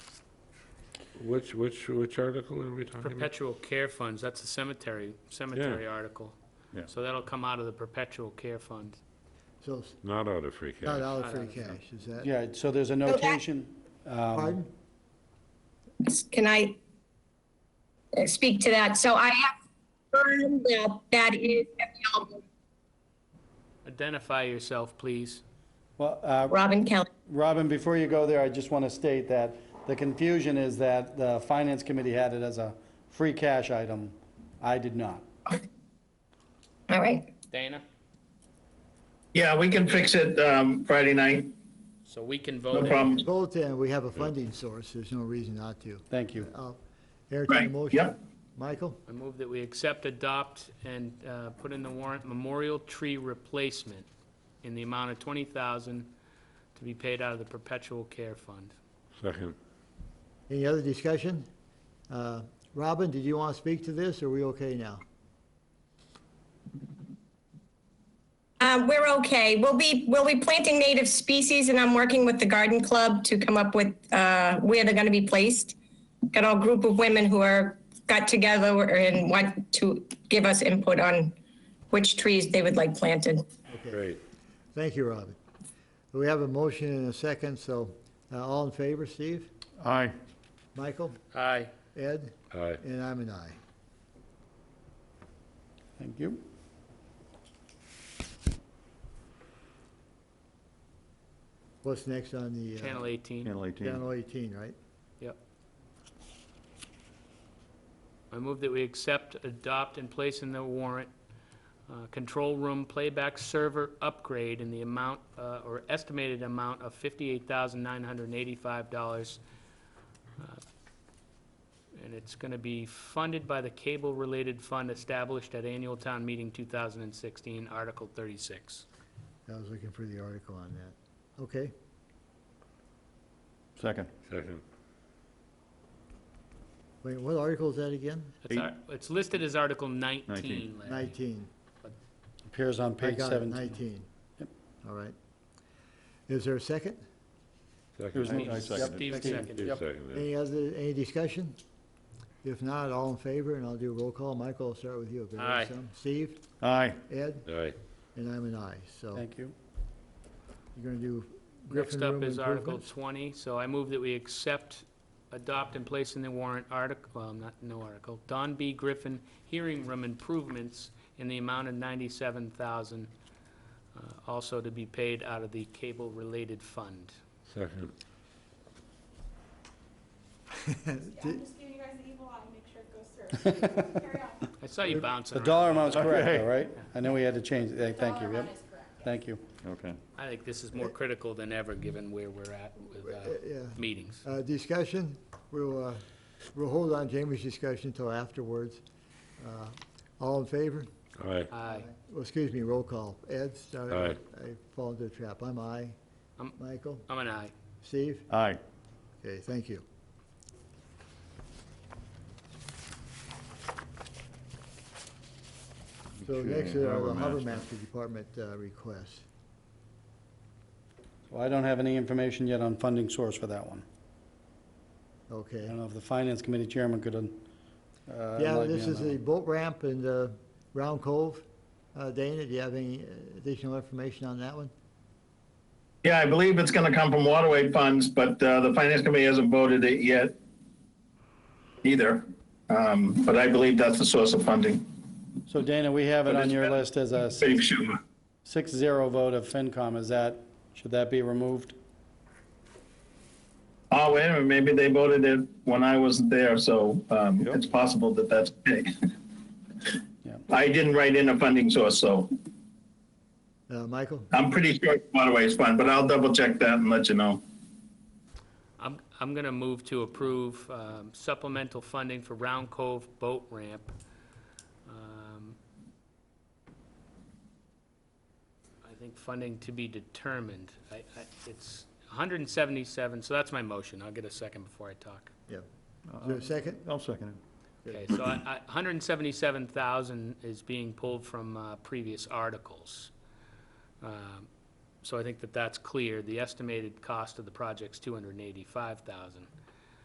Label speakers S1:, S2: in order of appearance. S1: Which, which, which article are we talking about?
S2: Perpetual care funds, that's a cemetery, cemetery article.
S3: Yeah.
S2: So that'll come out of the perpetual care fund.
S4: So it's
S1: Not out of free
S4: not
S1: cash.
S4: out
S2: I
S4: of free
S2: don't know.
S4: cash, is that?
S5: Yeah, so there's a
S6: that-
S5: notation. um,
S4: Pardon?
S6: Can I uh, speak to that? So I have confirmed that that is available.
S2: Identify yourself, please.
S5: Well, uh,
S6: Robin Kelly.
S5: Robin, before you go there, I just want to state that the confusion is that the Finance Committee had it as a free cash item. I did not.
S6: All right.
S2: Dana,
S7: Yeah, we can fix it um, Friday night,
S2: so we can
S7: no
S2: vote it.
S7: problem.
S4: Both, and we have a funding source, there's no reason not to.
S5: Thank you.
S4: I'll entertain a
S7: Right,
S4: motion.
S7: yep.
S4: Michael,
S2: I move that we accept, adopt, and uh, put in the warrant memorial tree replacement in the amount of 20000 to be paid out of the perpetual care fund.
S1: Second.
S4: any other discussion? Uh, Robin, did you want to speak to this, or are we okay now?
S6: Um, we're okay. We'll be, we'll be planting native species and I'm working with the garden club to come up with, uh, where they're gonna be placed. Got a group of women who are, got together and want to give us input on which trees they would like planted.
S1: Great.
S4: Thank you, Robin. We have a motion and a second, so uh, all in favor, Steve?
S3: Aye.
S4: Michael?
S2: Aye.
S4: Ed?
S1: Aye.
S4: And I'm an aye.
S5: Thank you.
S4: What's next on the? uh,
S2: Channel 18.
S3: Channel 18.
S4: Channel 18, right?
S2: Yep. I move that we accept, adopt, and place in the warrant, uh, control room playback server upgrade in the amount, uh, or estimated amount of $58,985. Uh, And it's going to be funded by the cable-related fund established at annual town meeting 2016, Article 36.
S4: I was looking for the article on that. Okay,
S3: Second.
S1: Second.
S4: wait, what article is that again?
S2: It's ar- It's listed as Article 19,
S3: Nineteen.
S2: Larry.
S4: 19.
S5: Appears on
S4: I
S5: page
S4: got it,
S5: 17.
S4: 19. All right. Is there a second?
S5: was
S1: Second.
S5: me. I
S2: Steve
S5: seconded.
S2: Steve
S5: Yep.
S2: seconded.
S1: Steve seconded.
S4: Any other, any discussion? If not, all in favor, and I'll do a roll call. Michael, I'll start with you. if there is
S2: Aye.
S4: some. Steve,
S3: Aye.
S4: Ed,
S1: Aye.
S4: and I'm an aye, so
S5: Thank you.
S4: you're gonna do Griffin
S2: Next up
S4: Room
S2: is Article
S4: improvements?
S2: 20, so I move that we accept, adopt, and place in the warrant article, well, not, no article, Don B. Griffin Hearing Room Improvements in the amount of 97000 uh, also to be paid out of the cable-related fund.
S1: Second.
S8: I'm just giving you guys the evil eye, make sure it goes through. Carry on.
S2: I saw you bouncing
S5: The
S2: around.
S5: dollar amount's correct, though,
S3: Okay.
S5: right? I know we had to change, eh, thank
S8: Dollar
S5: you,
S8: amount
S5: yep,
S8: is correct.
S5: thank you.
S3: Okay.
S2: I think this is more critical than ever, given where we're at with uh,
S4: Yeah.
S2: meetings.
S4: Uh, discussion, we'll, uh, we'll hold on Jamie's discussion until afterwards. Uh, All in favor?
S1: Aye.
S2: Aye.
S4: Well, excuse me, roll call. Ed, sorry,
S1: Aye.
S4: I fall into the trap. I'm aye.
S2: I'm-
S4: Michael?
S2: I'm an aye.
S4: Steve?
S3: Aye.
S4: Okay, thank you. So
S3: Okay,
S4: next are the
S3: Harbor
S4: Harbor
S3: Master.
S4: Master Department uh, requests.
S5: Well, I don't have any information yet on funding source for that one. I
S4: Okay.
S5: don't know if the Finance Committee Chairman could, uh,
S4: Yeah,
S5: enlighten me
S4: this
S5: on
S4: is
S5: that
S4: the
S5: one.
S4: boat ramp and uh, Round Cove. Uh, Dana, do you have any additional information on that one?
S7: Yeah, I believe it's going to come from waterway funds, but uh, the finance committee hasn't voted it yet either. Um, But I believe that's the source of funding.
S5: So Dana, we have it on your list as a
S7: Dave Schumer.
S5: six-zero vote of FinCom, is that, should that be removed?
S7: Oh, wait a minute, maybe they voted it when I wasn't there, so um, it's possible that that's.
S5: Yeah.
S7: I didn't write in a funding source, so
S4: Uh, Michael?
S7: I'm pretty sure it's waterways fund, but I'll double check that and let you know.
S2: I'm, I'm going to move to approve um, supplemental funding for Round Cove Boat Ramp. Um, I think funding to be determined. I, I, it's 177, so that's my motion. I'll get a second before I talk.
S4: Yeah. Is there a second?
S3: I'll second it.
S2: Okay, so I, I, 177,000 is being pulled from uh, previous articles. Um, So I think that that's clear. The estimated cost of the project's 285,000.